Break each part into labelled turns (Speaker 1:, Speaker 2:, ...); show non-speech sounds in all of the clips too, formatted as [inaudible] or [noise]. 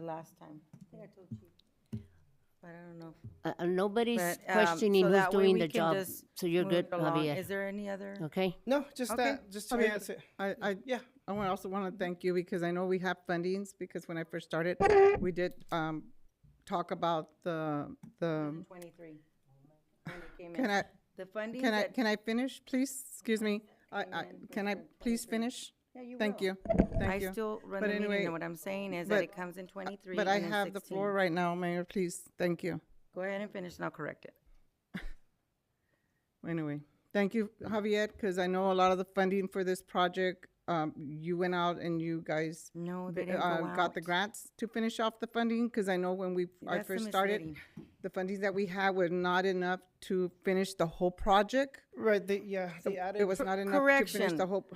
Speaker 1: last time. I think I told you. But I don't know. if-
Speaker 2: Uh, uh, nobody's
Speaker 1: but, um,
Speaker 2: questioning
Speaker 1: so
Speaker 2: who's
Speaker 1: that way
Speaker 2: doing
Speaker 1: we
Speaker 2: the
Speaker 1: can
Speaker 2: job.
Speaker 1: just
Speaker 2: So you're
Speaker 1: move it
Speaker 2: good,
Speaker 1: along.
Speaker 2: Javier.
Speaker 1: Is there any other?
Speaker 2: Okay.
Speaker 3: No, just
Speaker 1: Okay.
Speaker 3: that. Just
Speaker 4: I
Speaker 3: to
Speaker 4: mean,
Speaker 3: answer.
Speaker 4: I, I, yeah, I want, also want to thank you because I know we have fundings, because when I first started, we did, um, talk about the, the,
Speaker 1: Twenty-three. When it came
Speaker 4: can
Speaker 1: in.
Speaker 4: I,
Speaker 1: Um, The funding
Speaker 4: can I,
Speaker 1: that.
Speaker 4: can I finish, please? Excuse me, I, I, can I please finish?
Speaker 1: Yeah, you
Speaker 4: Thank
Speaker 1: will.
Speaker 4: you,
Speaker 1: I
Speaker 4: thank you.
Speaker 1: still run the
Speaker 4: But
Speaker 1: meeting,
Speaker 4: anyway,
Speaker 1: and what I'm saying is that
Speaker 4: but-
Speaker 1: it comes in twenty-three
Speaker 4: But I
Speaker 1: and
Speaker 4: have
Speaker 1: then
Speaker 4: the floor
Speaker 1: sixteen.
Speaker 4: right now, Mayor, please, thank you.
Speaker 1: Go ahead and finish, and I'll correct it.
Speaker 4: Anyway, thank you, Javier, because I know a lot of the funding for this project, um, you went out and you guys
Speaker 1: No, they
Speaker 4: b-
Speaker 1: didn't go
Speaker 4: uh,
Speaker 1: out.
Speaker 4: got the grants to finish off the funding, because I know when we, I
Speaker 1: that's the
Speaker 4: first started,
Speaker 1: misleading.
Speaker 4: the funding that we had were not enough to finish the whole project.
Speaker 3: Right. They, yeah. They added.
Speaker 4: It was not enough to finish the
Speaker 1: correction.
Speaker 4: whole,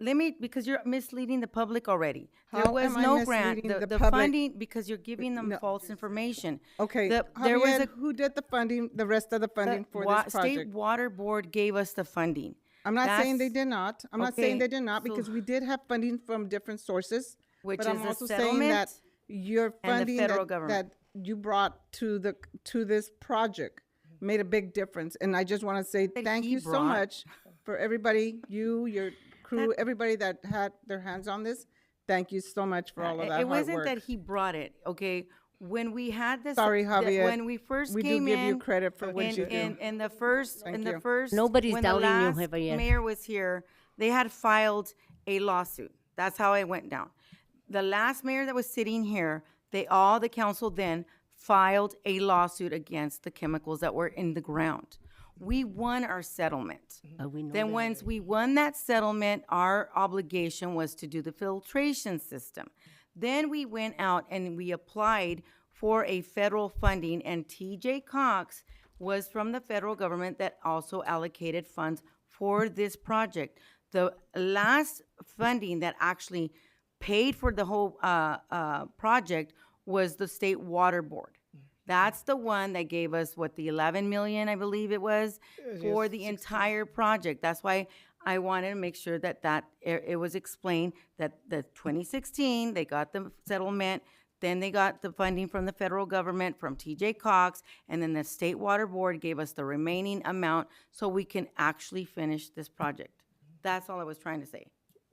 Speaker 1: Let me, because you're misleading the public already. There
Speaker 4: How
Speaker 1: was
Speaker 4: am I
Speaker 1: no grant,
Speaker 4: misleading
Speaker 1: the,
Speaker 4: the
Speaker 1: the
Speaker 4: public?
Speaker 1: funding, because you're giving them
Speaker 4: No.
Speaker 1: false information.
Speaker 4: okay,
Speaker 1: The- There was a,
Speaker 4: Javier, who did the funding, the rest of the funding
Speaker 1: the
Speaker 4: for
Speaker 1: wa-
Speaker 4: this
Speaker 1: State
Speaker 4: project?
Speaker 1: Water Board gave us the funding.
Speaker 4: I'm not saying they
Speaker 1: That's-
Speaker 4: did not, I'm not saying
Speaker 1: okay,
Speaker 4: they did not,
Speaker 1: so-
Speaker 4: because we did have funding from different sources.
Speaker 1: Which
Speaker 4: but
Speaker 1: is
Speaker 4: I'm
Speaker 1: the
Speaker 4: also saying that
Speaker 1: settlement
Speaker 4: Your
Speaker 1: and the
Speaker 4: funding
Speaker 1: federal
Speaker 4: that,
Speaker 1: government.
Speaker 4: that you brought to the, to this project made a big difference. And I just want to say thank
Speaker 1: he
Speaker 4: you so
Speaker 1: brought.
Speaker 4: much for everybody, you, your crew, everybody that had their hands on this. Thank you so much for all
Speaker 1: Uh,
Speaker 4: of that
Speaker 1: It
Speaker 4: hard
Speaker 1: wasn't that
Speaker 4: work.
Speaker 1: he brought it, okay? When we had this.
Speaker 4: Sorry,
Speaker 1: the-
Speaker 4: Javier.
Speaker 1: When we first
Speaker 4: We do
Speaker 1: came in.
Speaker 4: give you credit for what
Speaker 1: and-
Speaker 4: you do.
Speaker 1: And, and the first, and the
Speaker 4: you.
Speaker 1: first.
Speaker 2: Nobody's
Speaker 1: when the
Speaker 2: doubting you,
Speaker 1: last
Speaker 2: Javier.
Speaker 1: Mayor was here, they had filed a lawsuit. That's how it went down. The last mayor that was sitting here, they, all the council then filed a lawsuit against the chemicals that were in the ground. We won our settlement.
Speaker 2: Uh, we know
Speaker 1: Then
Speaker 2: that.
Speaker 1: once we won that settlement, our obligation was to do the filtration system. Then we went out and we applied for a federal funding and TJ Cox was from the federal government that also allocated funds for this project. The last funding that actually paid for the whole uh, uh, project was the state water board. That's the one that gave us what the 11 million, I believe it was, for the entire project. That's why I wanted to make sure that that it, it was explained that the 2016 they got the settlement, then they got the funding from the federal government from TJ Cox, and then the state water board gave us the remaining amount so we can actually finish this project. That's all I was trying to say.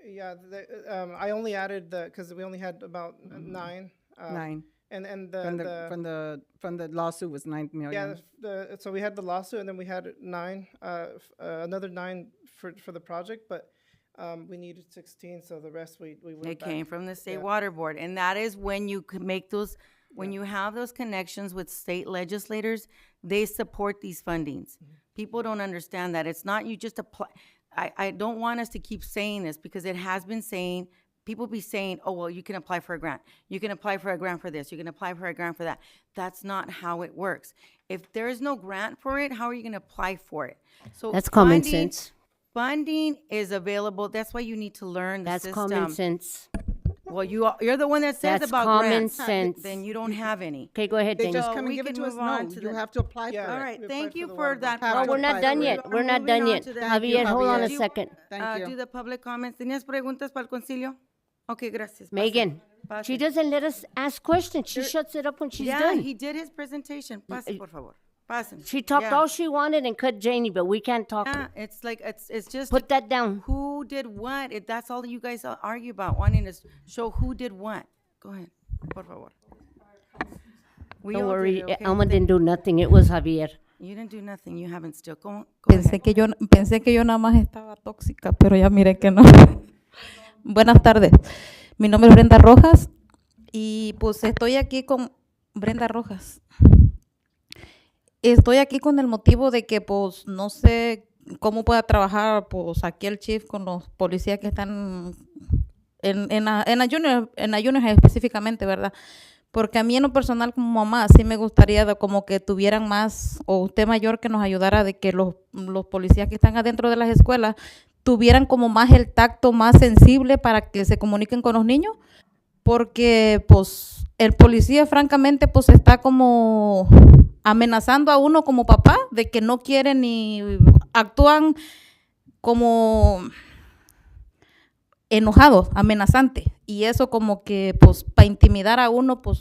Speaker 3: Yeah. The, um, I only added the because we ononly had about uh, nine. Uh,
Speaker 4: Nine,
Speaker 3: And and the,
Speaker 4: from
Speaker 3: the,
Speaker 4: the, from the, from the lawsuit was nine
Speaker 3: yeah.
Speaker 4: million.
Speaker 3: The, the, so we had the lawsuit, and then we had nine. Uh, f- uh, another nine for for the project, but um, we needed sixteen. So the rest we we went
Speaker 1: It
Speaker 3: back.
Speaker 1: came from the state water board, and that is when you could make those, when you have those connections with state legislators, they support these fundings. People don't understand that. It's not you just apply, I, I don't want us to keep saying this because it has been saying, people be saying, oh, well, you can apply for a grant. You can apply for a grant for this. You can apply for a grant for that. That's not how it works. If there is no grant for it, how are you gonna apply for it? So
Speaker 2: That's common
Speaker 1: funding-
Speaker 2: sense.
Speaker 1: Funding is available. That's why you need to learn the
Speaker 2: That's
Speaker 1: system.
Speaker 2: common sense.
Speaker 1: Well, you are, you're the one that says
Speaker 2: That's
Speaker 1: about
Speaker 2: common
Speaker 1: grants.
Speaker 2: sense.
Speaker 1: Then you don't have any.
Speaker 2: Okay, go ahead,
Speaker 4: They
Speaker 2: Daniel.
Speaker 4: just come
Speaker 1: we
Speaker 4: and give
Speaker 1: can
Speaker 4: it to us.
Speaker 1: move on
Speaker 4: No,
Speaker 1: to
Speaker 4: you
Speaker 1: the-
Speaker 4: have to apply for
Speaker 3: Yeah.
Speaker 4: it.
Speaker 1: All
Speaker 3: Alright,
Speaker 1: right,
Speaker 3: we
Speaker 1: thank
Speaker 3: applied
Speaker 1: you
Speaker 3: for the
Speaker 1: for
Speaker 3: water.
Speaker 1: that.
Speaker 4: Have
Speaker 2: Oh,
Speaker 4: to
Speaker 2: we're
Speaker 1: project.
Speaker 4: apply
Speaker 2: not
Speaker 4: for
Speaker 2: done
Speaker 4: it.
Speaker 2: yet. We're not done yet.
Speaker 1: Moving on to the-
Speaker 2: Javier, hold on a
Speaker 1: Do you wanna,
Speaker 2: second.
Speaker 4: Thank
Speaker 1: uh,
Speaker 4: you.
Speaker 1: Do the public comments. ¿Tenías preguntas para el concilio? Okay, gracias. Pase.
Speaker 2: Megan,
Speaker 1: Pase.
Speaker 2: she doesn't let us ask questions. She shuts it up when she's
Speaker 1: Yeah,
Speaker 2: done. Mm, eh,
Speaker 1: he did his presentation. Pase, por favor. Pasen.
Speaker 2: She talked
Speaker 1: Yeah.
Speaker 2: all she wanted and cut Janie, but we can't talk.
Speaker 1: Yeah, it's like, it's, it's just.
Speaker 2: Put that down.
Speaker 1: Who did what? It, that's all you guys a- argue about, wanting to s- show who did what. Go ahead, por favor. We
Speaker 2: Don't
Speaker 1: all did
Speaker 2: worry,
Speaker 1: it, okay?
Speaker 2: Alma didn't do nothing. It was Javier.
Speaker 1: You didn't do nothing. You haven't still. Go, on- go ahead.
Speaker 5: Pensé que yo pensé que yo nada más estaba tóxica, pero ya miré que no. [laughs] Buenas tardes. Mi nombre es Brenda Rojas y pues estoy aquí con Brenda Rojas. Estoy aquí con el motivo de que pues no sé cómo pueda trabajar pues aquí el chief con los policías que están en, en, la- en, la junior- en la junior específicamente, ¿verdad? Porque a mí en lo personal como mamá sí me gustaría de como que tuvieran más, o usted mayor que nos ayudara de que los, los policías que están adentro de las escuelas tuvieran como más el tacto más sensible para que se comuniquen con los niños. Porque pues el policía francamente pues está como amenazando a uno como papá de que no quieren ni actúan como enojados, amenazantes. Y eso como que pues para intimidar a uno pues